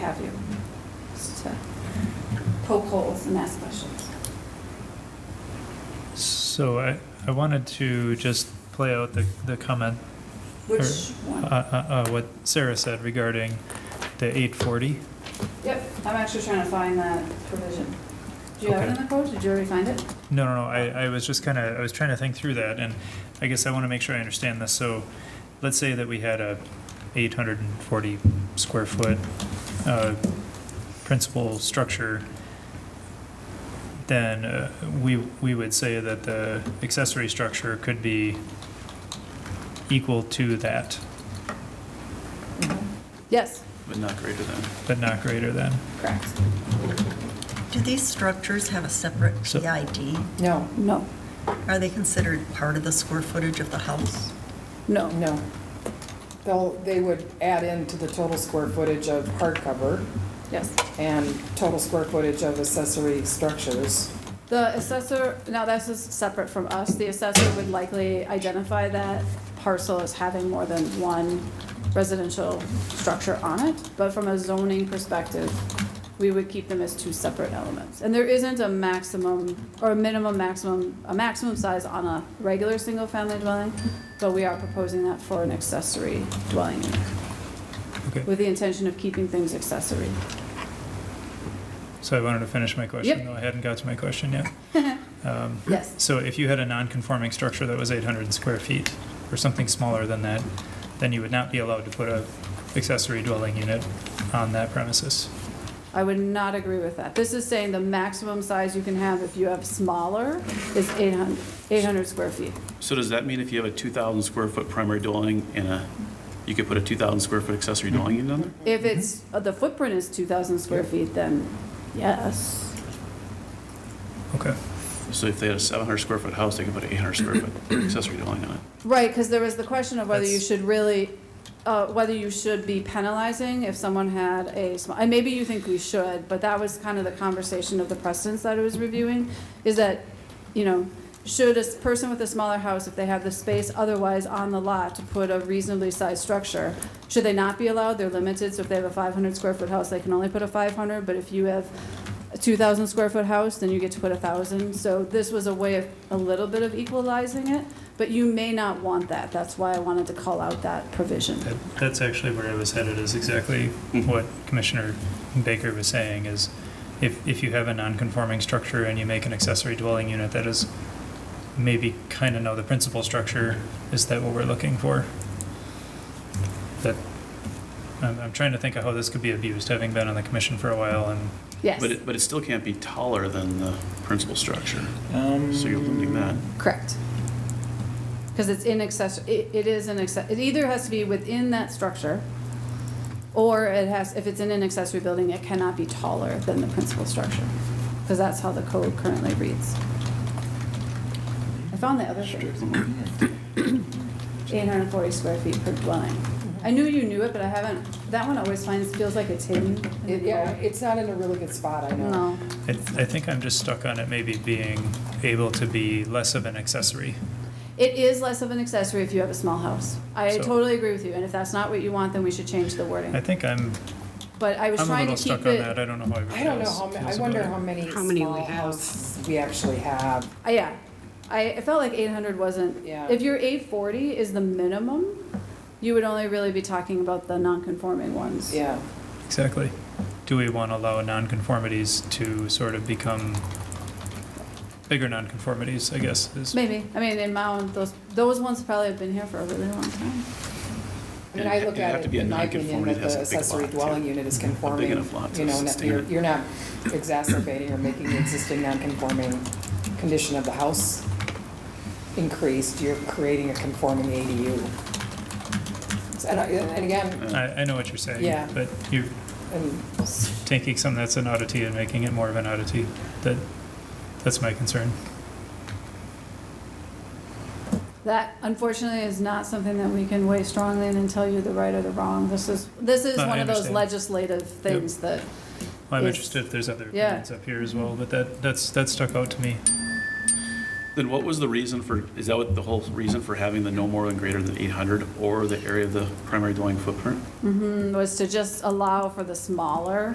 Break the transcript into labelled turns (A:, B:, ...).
A: have you. Just to poke holes and ask questions.
B: So I, I wanted to just play out the, the comment,
A: Which
B: uh,
A: one?
B: uh, uh, what Sarah said regarding the 840.
A: Yep, I'm actually trying to find that provision. Do you have it in the code? Did you already find it?
B: No, no, no, I, I was just kind of, I was trying to think through that, and I guess I want to make sure I understand this. So let's say that we had a 840 square foot uh, principal structure, then uh, we, we would say that the accessory structure could be equal to that,
A: Yes,
C: but not greater than.
B: but not greater than.
A: correct.
D: Do these structures have a separate
B: So-
D: PID?
E: No,
A: No,
D: Are they considered part of the square footage of the house?
A: no,
E: no. They'll, they would add into the total square footage of hardcover
A: yes.
E: and total square footage of accessory structures.
A: The assessor, now that's just separate from us, the assessor would likely identify that parcel as having more than one residential structure on it, but from a zoning perspective, we would keep them as two separate elements. And there isn't a maximum, or a minimum maximum, a maximum size on a regular single-family dwelling, but we are proposing that for an accessory dwelling unit,
B: Okay,
A: with the intention of keeping things accessory.
B: so I wanted to finish my question,
A: Yep.
B: though I hadn't got to my question yet. Um,
A: Yes,
B: So if you had a non-conforming structure that was 800 square feet, or something smaller than that, then you would not be allowed to put a accessory dwelling unit on that premises.
A: I would not agree with that. This is saying the maximum size you can have if you have smaller is 800, 800 square feet.
C: So does that mean if you have a 2,000 square foot primary dwelling and a, you could put a 2,000 square foot accessory dwelling unit on there?
A: If it's, uh, the footprint is 2,000 square feet, then yes.
B: Okay.
C: So if they had a 700 square foot house, they could put an 800 square foot accessory dwelling on it?
A: Right, because there was the question of whether you
B: That's-
A: should really, uh, whether you should be penalizing if someone had a small, and maybe you think we should, but that was kind of the conversation of the precedents that I was reviewing, is that, you know, should a s- person with a smaller house, if they have the space otherwise on the lot to put a reasonably sized structure, should they not be allowed? They're limited, so if they have a five hundred square foot house, they can only put a five hundred, but if you have a two thousand square foot house, then you get to put a thousand. So this was a way of, a little bit of equalizing it. But you may not want that. That's why I wanted to call out that provision.
B: That, that's actually where I was headed, is exactly
C: Mhm.
B: what Commissioner Baker was saying, is if, if you have a non-conforming structure and you make an accessory dwelling unit that is maybe kind of know the principal structure, is that what we're looking for? That, I'm, I'm trying to think of how this could be abused, having been on the commission for a while and
A: Yes,
C: But it, but it still can't be taller than the principal structure.
F: Um,
C: So you're limiting that.
A: correct. Because it's in access, it, it is an access, it either has to be within that structure, or it has, if it's in an accessory building, it cannot be taller than the principal structure. Because that's how the code currently reads. I found the other thing. Eight hundred and forty square feet per dwelling. I knew you knew it, but I haven't, that one always finds, feels like it's hidden. in the
E: It- Yeah,
A: code.
E: it's not in a really good spot, I know.
A: No.
B: I, I think I'm just stuck on it maybe being able to be less of an accessory.
A: It is less of an accessory if you have a small house. I
B: So-
A: totally agree with you, and if that's not what you want, then we should change the
B: I
A: wording.
B: think I'm,
A: But I was
B: I'm a
A: trying to
B: little
A: keep
B: stuck on
A: it,
B: that, I don't know how everybody
E: I don't know
B: else
E: how, ma- I
B: feels
E: wonder
B: about it.
E: how many
G: How many we
E: small
G: have.
E: houses we actually have.
A: uh, yeah. I, it felt like eight hundred wasn't,
E: Yeah.
A: if your eight forty is the minimum, you would only really be talking about the non-conforming ones.
E: Yeah,
B: Exactly. Do we want to allow nonconformities to sort of become bigger nonconformities, I guess, is,
A: Maybe, I mean, in Mound, those, those ones probably have been here for a really long time.
E: I mean,
C: And
E: I
C: it-
E: look
C: it'd have
E: at
C: to
E: it,
C: be a
E: in my opinion,
C: non-conformity
E: that
C: that has
E: the
C: a big
E: accessory
C: lot, too.
E: dwelling unit is conforming.
C: enough lot to
E: You know, not-
C: sustain
E: you're,
C: it.
E: you're not exacerbating or making the existing non-conforming condition of the house increased, you're creating a conforming ADU. So, And, I- and again,
B: I, I know what you're saying.
E: Yeah.
B: But you're
E: and
B: taking something that's an oddity and making it more of an oddity, that, that's my concern.
A: That unfortunately is not something that we can weigh strongly in and tell you the right or the wrong. This is, this is
B: No, I
A: one of those
B: understand.
A: legislative things that
B: I'm
A: It's-
B: interested if there's other
A: yeah.
B: opinions up here as well, but that, that's, that stuck out to me.
C: Then what was the reason for, is that what the whole reason for having the no more than greater than 800
A: mm,
C: or the area of the primary dwelling footprint?
A: was to just allow for the smaller